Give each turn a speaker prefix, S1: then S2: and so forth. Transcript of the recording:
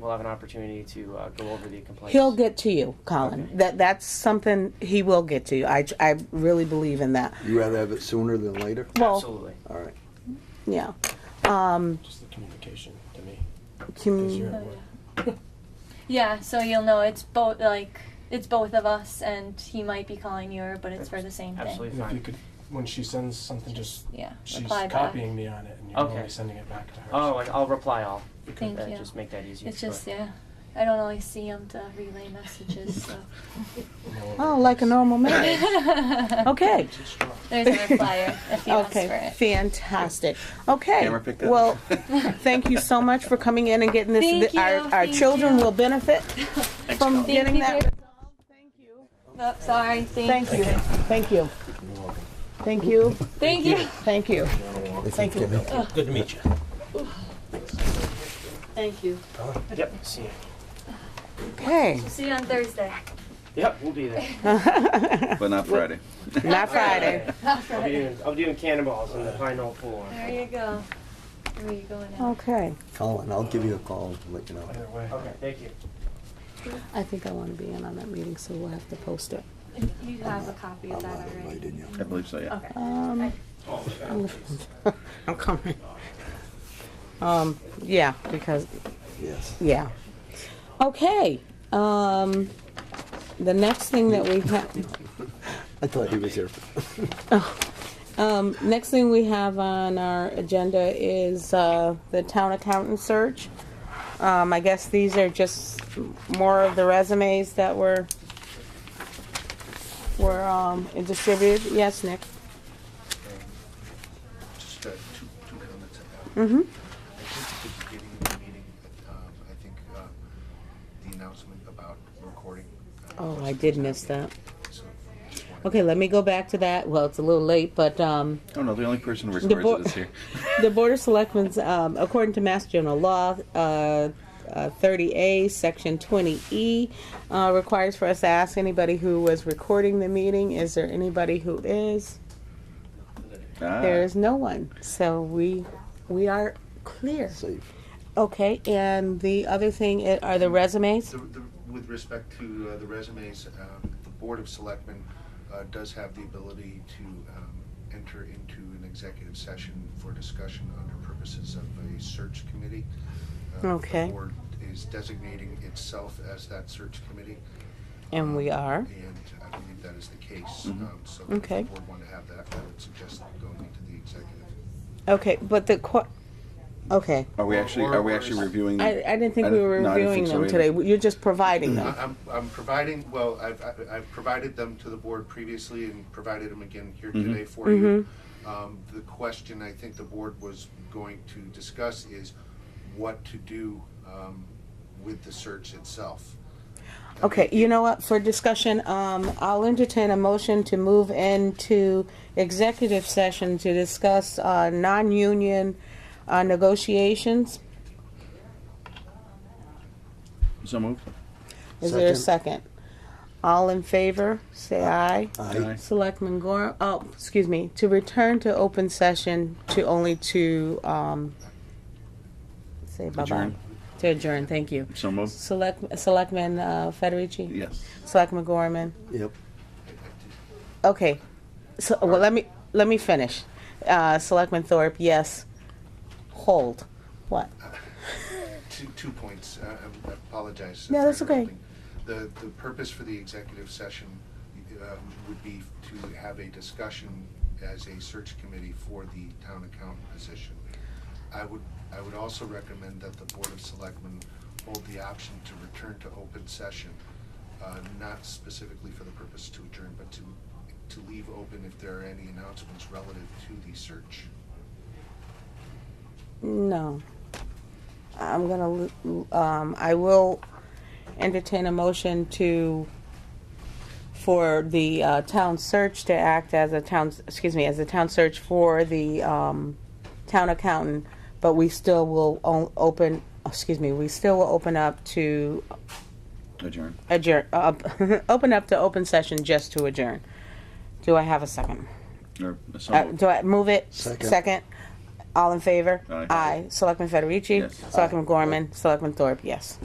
S1: we'll have an opportunity to uh, go over the complaints.
S2: He'll get to you, Colin. That that's something he will get to you. I I really believe in that.
S3: You rather have it sooner than later?
S2: Well,
S1: Absolutely.
S3: All right.
S2: yeah. Um,
S4: Just the communication to me.
S2: Commu-
S4: 'cause you're at work.
S5: Yeah, so you'll know it's both like it's both of us, and he might be calling you, but it's for the same
S1: Absolutely
S4: And If you
S1: fine.
S4: could, when she sends something, just,
S5: thing. Yeah,
S4: she's
S5: reply back.
S4: copying me on it and you're
S1: Okay.
S4: only sending it back to her.
S1: Oh, like I'll reply all.
S5: Thank
S1: That-
S5: you.
S1: Just make that easier.
S5: It's just yeah, I don't always see him to relay messages. So
S4: so no
S2: Oh,
S4: worries.
S2: like a normal marriage.
S5: there's
S2: Okay.
S5: a replier if he asks for
S2: Okay.
S5: it.
S2: Fantastic. Okay.
S6: Camera picked up.
S2: Well, thank you so much for coming in and getting this.
S5: Thank
S2: our
S5: you,
S2: our
S5: thank
S2: children
S5: you.
S2: will benefit from
S5: Thank
S2: getting
S5: you,
S2: that.
S5: dear. Oh, sorry. Thank,
S2: Thank you. Thank you. Thank you.
S5: Thank you.
S2: Thank you. Thank you.
S7: Good to meet you.
S2: Thank you.
S1: Yep. See you.
S2: Okay.
S5: See you on Thursday.
S1: Yep. We'll be there.
S6: But not Friday.
S2: Not Friday.
S1: I'll be doing, I'll be doing cannonballs in the Pine Knoll Pool.
S5: There you go. Where are you going now?
S2: Okay.
S3: Colin, I'll give you a call and let you know.
S4: Either way.
S1: Okay. Thank you.
S2: I think I want to be in on that meeting, so we'll have to post it.
S5: You have a copy of that already.
S3: Didn't you?
S6: I believe so, yeah.
S2: Um, I'm coming. Um, yeah, because,
S3: Yes.
S2: yeah. Okay, um, the next thing that we have,
S3: I thought he was here.
S2: um, next thing we have on our agenda is, uh, the town accountant search. Um, I guess these are just more of the resumes that were, were, um, distributed. Yes, Nick?
S8: Just uh, two, two comments I have.
S2: Mm-hmm.
S8: I think at the beginning of the meeting, um, I think uh, the announcement about recording. uh,
S2: Oh,
S8: was-
S2: I did miss that.
S8: so just wanted-
S2: Okay, let me go back to that. Well, it's a little late, but, um,
S6: Oh, no, the only person who
S2: The
S6: records
S2: board-
S6: it is here.
S2: The Board of Selectmen's, um, according to Mass General Law, uh, uh, 30A, Section 20E, uh, requires for us to ask anybody who was recording the meeting, is there anybody who is?
S6: Ah,
S2: There is no one, so we, we are clear.
S3: Safe.
S2: Okay, and the other thing i- are the resumes?
S8: The- the- With respect to uh, the resumes, um, the Board of Selectmen uh, does have the ability to um, enter into an executive session for discussion under purposes of a search committee. Uh,
S2: Okay.
S8: The board is designating itself as that search committee.
S2: And we are.
S8: And I believe that is the case.
S6: Mhm.
S8: Um, So if
S2: Okay.
S8: the board want to have that, I would suggest going into the executive.
S2: Okay, but the, qu- okay,
S6: Are we actually, are we actually reviewing them?
S2: I, I didn't think
S6: I
S2: we
S6: don't-
S2: were
S6: no, I didn't
S2: reviewing
S6: think so
S2: them
S6: either.
S2: today. You're just providing
S8: I-
S2: them.
S8: I'm, I'm providing, well, I've, I've- I've provided them to the board previously and provided them again here
S6: Mhm.
S8: today for you. Um, The question I think the board was going to discuss is what to do um, with the search itself.
S2: Okay, you know what, for discussion, um, I'll entertain a motion to move into executive session to discuss, uh, non-union, uh, negotiations.
S6: So moved.
S2: Is there a second? All in favor, say aye.
S3: I,
S6: Aye.
S2: Selectman Gore, oh, excuse me, to return to open session to only to, um, say bye-bye.
S6: Adjourn.
S2: To adjourn, thank you.
S6: So moved.
S2: Select, Selectman, uh, Federici?
S6: Yes.
S2: Selectman Gorman?
S3: yep.
S2: Okay, so, well, let me, let me finish. Uh, Selectman Thorpe, yes. Hold. What?
S8: Two, two points, I I apologize.
S2: No,
S8: for
S2: that's okay.
S8: interrupting. The, the purpose for the executive session um, would be to have a discussion as a search committee for the town accountant position. I would, I would also recommend that the Board of Selectmen hold the option to return to open session, uh, not specifically for the purpose to adjourn, but to, to leave open if there are any announcements relative to the search.
S2: No. I'm gonna, l- um, I will entertain a motion to, for the, uh, town search to act as a town, excuse me, as a town search for the, um, town accountant, but we still will o- open, excuse me, we still will open up to
S6: Adjourn.
S2: adjourn, uh, open up to open session just to adjourn. Do I have a second?
S6: Or, so
S2: Uh,
S6: moved.
S2: do I move it?
S3: Second.
S2: Second. All in favor?
S6: Aye.
S2: Aye. Selectman Federici?
S6: Yes.
S2: Selectman Gorman? Selectman Thorpe, yes.